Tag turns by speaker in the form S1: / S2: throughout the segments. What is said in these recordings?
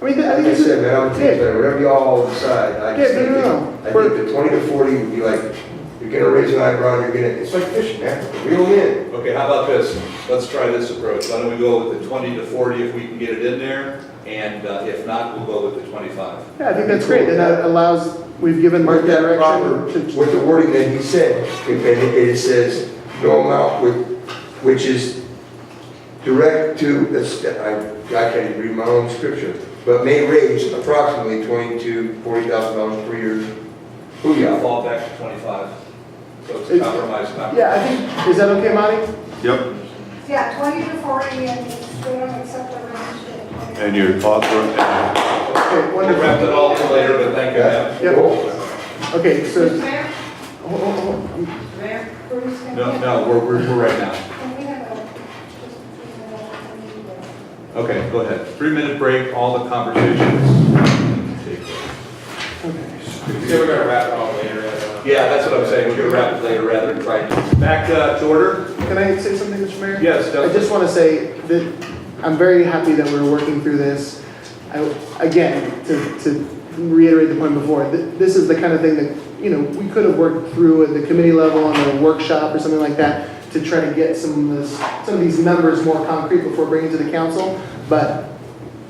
S1: I mean, I
S2: Like
S1: think
S2: I
S1: this
S2: said,
S1: is,
S2: man, I'm,
S1: yeah,
S2: man, whatever y'all decide, I just
S1: Yeah, no,
S2: think,
S1: no, no.
S2: I think the twenty to forty would be like, you're gonna raise an eyebrow, you're gonna, it's like fishing, man, reel 'em in.
S3: Okay, how about this? Let's try this approach. Why don't we go with the 20 to 40 if we can get it in there? And uh, if not, we'll go with the 25.
S1: yeah, I think that's great, and that allows, we've given
S2: Mark that proper
S1: direction to,
S2: with the wording that he said, and it it says, no amount with, which is direct to, that's- I, I can't even read my own scripture, but may raise approximately twenty-two, forty thousand dollars per year.
S3: We'll
S2: Booyah.
S3: fall back to 25. So it's a
S1: It's-
S3: compromise, not.
S1: yeah, I think, is that okay, Monty?
S4: Yep,
S5: Yeah, 20 to 40, and it's going to accept the range at 20.
S4: and your thoughts were,
S1: Okay,
S3: We'll wrap
S1: wonderful.
S3: it all up later, but thank you,
S2: Yeah.
S3: ma'am.
S1: Yep.
S2: Cool.
S1: Okay, so,
S6: Mr. Mayor,
S1: oh, oh, oh,
S6: Mr. Mayor,
S5: Bruce, can
S3: No,
S5: we-
S3: no, we're, we're, we're right now.
S5: Can we have a, just a minute, I need to-
S3: Okay, go ahead. Three-minute break, all the conversations.
S7: Yeah, we're gonna wrap it all later. uh,
S3: Yeah, that's what I'm saying. We're gonna wrap it later rather than try to. Back uh, to order?
S1: can I say something, Mr. Mayor?
S3: Yes,
S1: I
S3: Dustin.
S1: just want to say that I'm very happy that we're working through this. I, again, to, to reiterate the point before, th- this is the kind of thing that, you know, we could have worked through at the committee level on a workshop or something like that to try to get some of this, some of these numbers more concrete before bringing to the council. But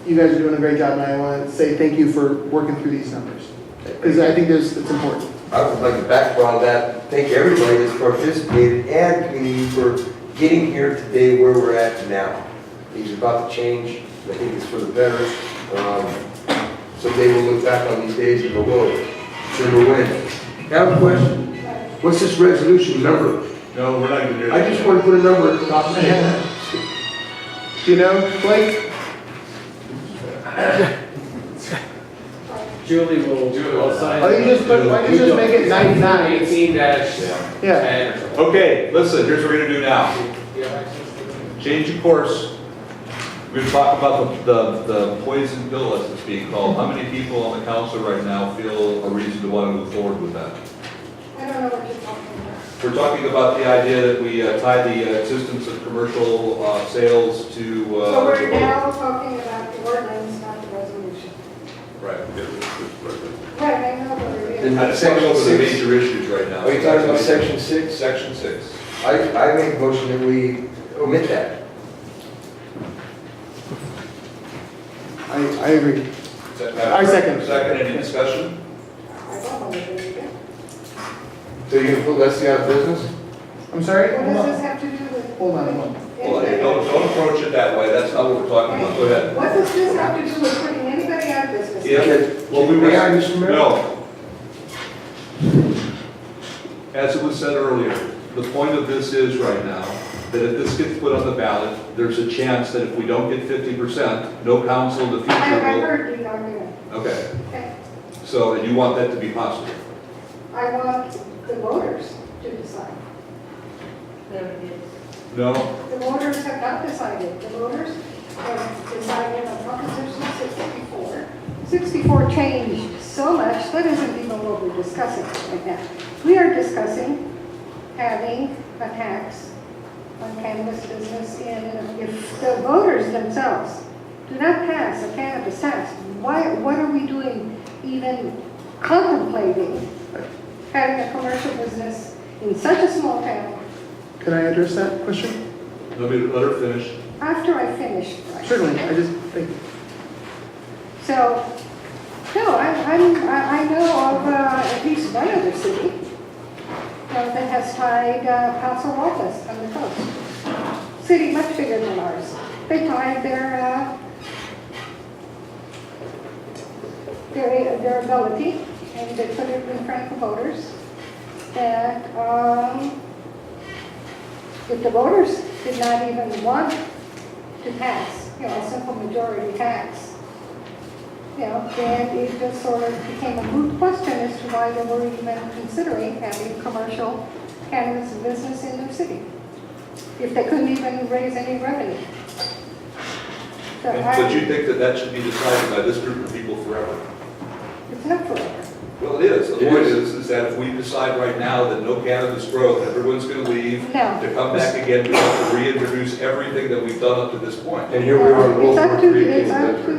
S1: you guys are doing a great job and I want to say thank you for working through these numbers. Because I think there's, it's important.
S2: I would like to back on that, thank everybody that's participated and community for getting here today where we're at now. Things are about to change, I think it's for the better. Um, Someday we'll look back on these days and go, whoa, sure we win. I have a question, what's this resolution number?
S3: No, we're not even near.
S2: I just want to put a number at the top of my head.
S1: Do you know, Blake?
S8: Julie will, will sign.
S1: Why don't Oh, you just put, why don't you just make it 99?
S8: Eighteen dash
S1: Yeah.
S8: ten or something.
S3: Okay, listen, here's what we're gonna do now.
S8: Do you have access to that?
S3: change of course. We're gonna talk about the, the, the poison pill, as it's being called. How many people on the council right now feel a reason to want to move forward with that?
S5: I don't know what you're talking about.
S3: We're talking about the idea that we uh, tie the uh, existence of commercial, uh, sales to, uh.
S5: So we're
S3: the vote.
S5: now talking about the ordinance, not the resolution.
S3: Right.
S5: Right, I know, but we're.
S2: Then-
S3: I just want to go over the
S2: Section six.
S3: major issues right now.
S2: Are you talking about section six?
S3: Section six.
S2: I, I make a motion that we omit that.
S1: I, I agree.
S3: Is that better?
S1: I second.
S3: Second, any discussion?
S5: I don't know what you're doing.
S2: So you're going to put Leslie out of business?
S1: I'm sorry?
S5: What
S1: Hold
S5: does
S1: on.
S5: this have to do with?
S1: Hold on, hold on.
S3: Well, hey, don't, don't approach it that way. That's not what we're talking about. Go ahead.
S5: What does this have to do with putting anybody out of business?
S3: Yeah. Well, we were.
S2: May I, Mr. Mayor?
S3: No. As it was said earlier, the point of this is right now, that if this gets put on the ballot, there's a chance that if we don't get fifty percent, no council in the
S5: I, I
S3: future
S5: heard you, I'm gonna,
S3: will. Okay,
S5: okay,
S3: so, and you want that to be possible.
S5: I want the voters to decide.
S3: No,
S5: The voters have not decided. The voters have decided on Proposition 64. 64 changed so much, that isn't even what we're discussing right now. We are discussing having a tax on cannabis business, and if the voters themselves do not pass a cannabis tax, why, what are we doing even contemplating having a commercial business in such a small town
S1: Can I address that question?
S3: let me, let her finish.
S5: after I finish?
S1: Certainly, I just, thank you.
S5: So, no, I, I'm, I I know of uh, at least one other city uh, that has tied uh, Paso Robles on the coast. City much bigger than ours. They tied their, uh, their, their ability uh, and they put it in front of the voters that, um, if the voters did not even want to pass, you know, a simple majority tax, you know, and it just sort of became a moot question as to why they were even considering having commercial cannabis business in their city, if they couldn't even raise any revenue. So I-
S3: But you think that that should be decided by this group of people forever?
S5: It's not forever.
S3: Well, it is. The
S2: It
S3: point
S2: is.
S3: is, is that if we decide right now that no cannabis growth, everyone's gonna leave,
S5: No.
S3: to come back again, we have to reintroduce everything that we've done up to this point.
S2: And here we are.
S5: It's up to, it's
S2: Wolford.
S5: up to